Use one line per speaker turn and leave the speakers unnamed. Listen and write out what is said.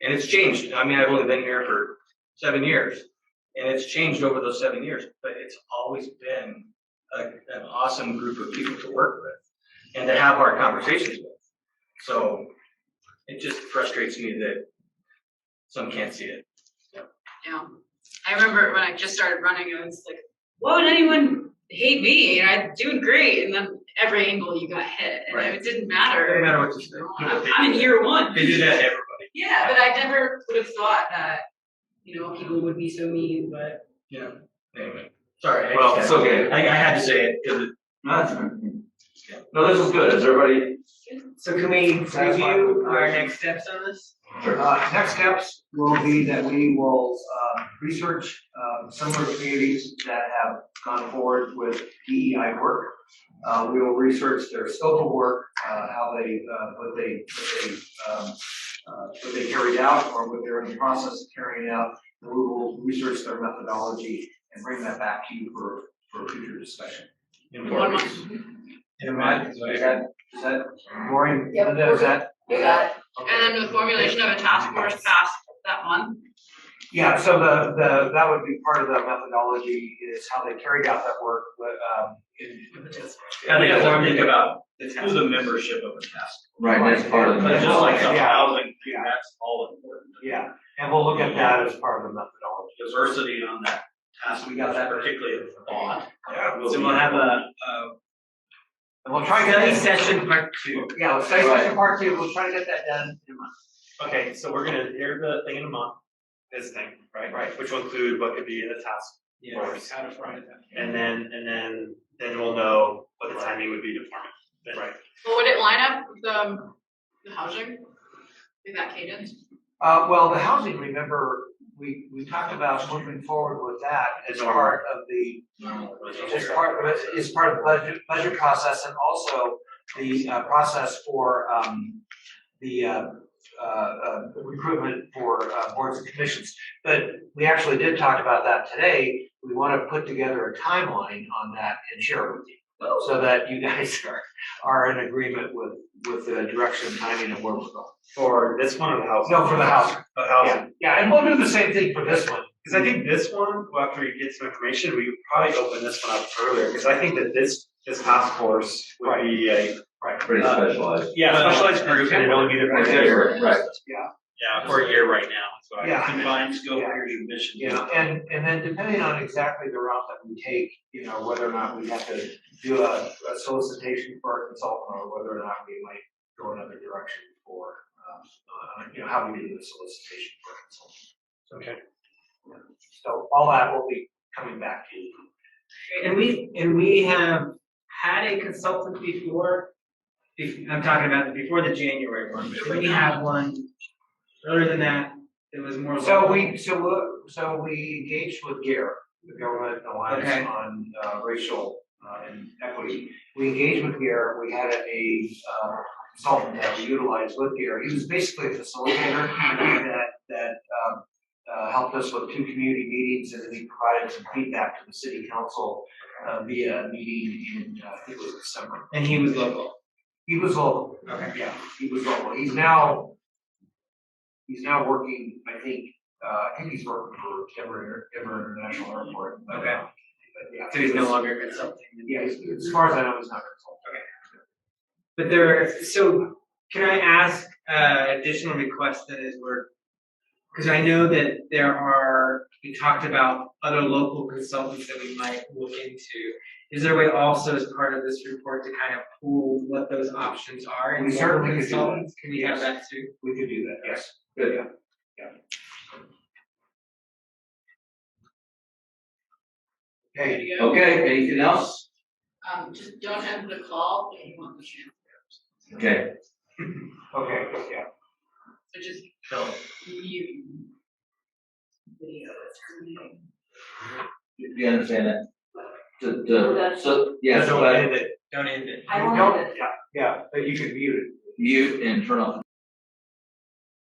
And it's changed. I mean, I've only been here for seven years and it's changed over those seven years, but it's always been a, an awesome group of people to work with and to have hard conversations with. So it just frustrates me that some can't see it.
Yeah, I remember when I just started running, I was like, why would anyone hate me? And I'm doing great. And then every angle you got hit, and
Right.
it didn't
It doesn't
matter.
matter what you say.
I'm I'm in year one.
They do that to everybody.
Yeah, but I never would have thought that, you know, people would be so mean, but
Yeah. Anyway, sorry. I just
Well,
had-
it's okay.
I, I had to say it because
No, that's fine. No, this is good. Is everybody?
So can we
That's my
review our
question.
next steps on this?
Uh, next steps will be that we will, uh, research, uh, similar communities that have gone forward with DEI work. Uh, we will research their scope of work, uh, how they, uh, what they, what they, um, uh, what they carried out or what they're in the process of carrying out. And we will research their methodology and bring that back to you for, for future discussion.
one
it.
month.
And Matt, is that, is that boring? Linda, is that?
You got
Okay.
And then the formulation of a task force passed that month.
Yeah, so the, the, that would be part of the methodology is how they carried out that work, but, um, in-
I think that's what I'm thinking about,
the
through
task.
the membership of a task.
Right, that's part of
But just like
the.
the
Yeah.
housing, thing,
Yeah.
that's all important.
Yeah, and we'll look at that as part of the methodology.
Diversity on that task,
We got that.
particularly of thought.
Yeah.
will
So
be-
we'll have a, a
And we'll try to
study
get that,
session part two.
yeah, let's study session part two, we'll try to get that done in a month.
Okay, so we're gonna hear the thing in a month, this thing, right?
Right.
Which will include what could be in the task,
Yes.
How to front it.
and then, and then, then we'll know what the timing would be to form it. Right.
Well, would it line up with the, the housing? With that cadence?
Uh, well, the housing, remember, we, we talked about moving forward with that as
Normal.
part of the It's part, it's part of the budget, budget process and also the uh, process for um, the uh, uh, uh, recruitment for uh, boards and commissions. But we actually did talk about that today. We want to put together a timeline on that and share it with you. So that you guys are, are in agreement with, with the direction and timing of where we're going.
For this one or the housing?
No, for the housing.
The housing,
Yeah, yeah, and we'll do the same thing for this one.
because I think this one, well, after we get some information, we could probably open this one up earlier, because I think that this, this task force would be a.
Pretty
Uh,
specialized.
Yeah, specialized group, and it'd only be there for a year.
Right, right.
Yeah, for a year right now, so I
Yeah.
combined scope, areas and mission.
You know, and, and then depending on exactly the route that we take, you know, whether or not we have to do a, a solicitation for a consultant or whether or not we might go another direction for, um, uh, you know, how we do the solicitation for a consultant.
Okay.
So all that will be coming back to you.
And we, and we have had a consultant before, be- I'm talking about before the January one, but we have one earlier than that, it was more.
So
local.
we, so we, so we engaged with GARE, the Government
Okay.
Alliance on uh, Racial uh, and Equity. We engaged with GARE, we had a uh, consultant that we utilized with GARE. He was basically a facilitator that, that um, uh, helped us with two community meetings and then he provided some feedback to the city council uh, via a meeting in, uh, I think it was December.
And he was local.
He was local.
Okay.
Yeah, he was local. He's now, he's now working, I think, uh, I think he's working for Denver, Denver International Airport. but, uh,
Okay.
But yeah.
So he's no longer a consultant.
Yeah, he's- as far as I know, he's not consulting.
But there, are- so can I ask uh, additional requests then as we're, because I know that there are, we talked about other local consultants that we might look into. Is there a way also as part of this report to kind of pool what those options are? and
We certainly
local
could do that.
consultants? Can we have that too?
We could do that, yes.
Good.
Yeah. Yeah.
Good
Okay,
to go.
Okay, anything else?
Um, just don't end the call if you want the chance.
Okay,
okay, yeah.
So just
So,
mute. Video is terminating.
do you understand that? The,
Well,
the,
that's-
so, yes,
don't
but
edit it.
Don't end it.
I
You
won't
don't-
have it.
Yeah, yeah, but you could mute it.
mute and turn off the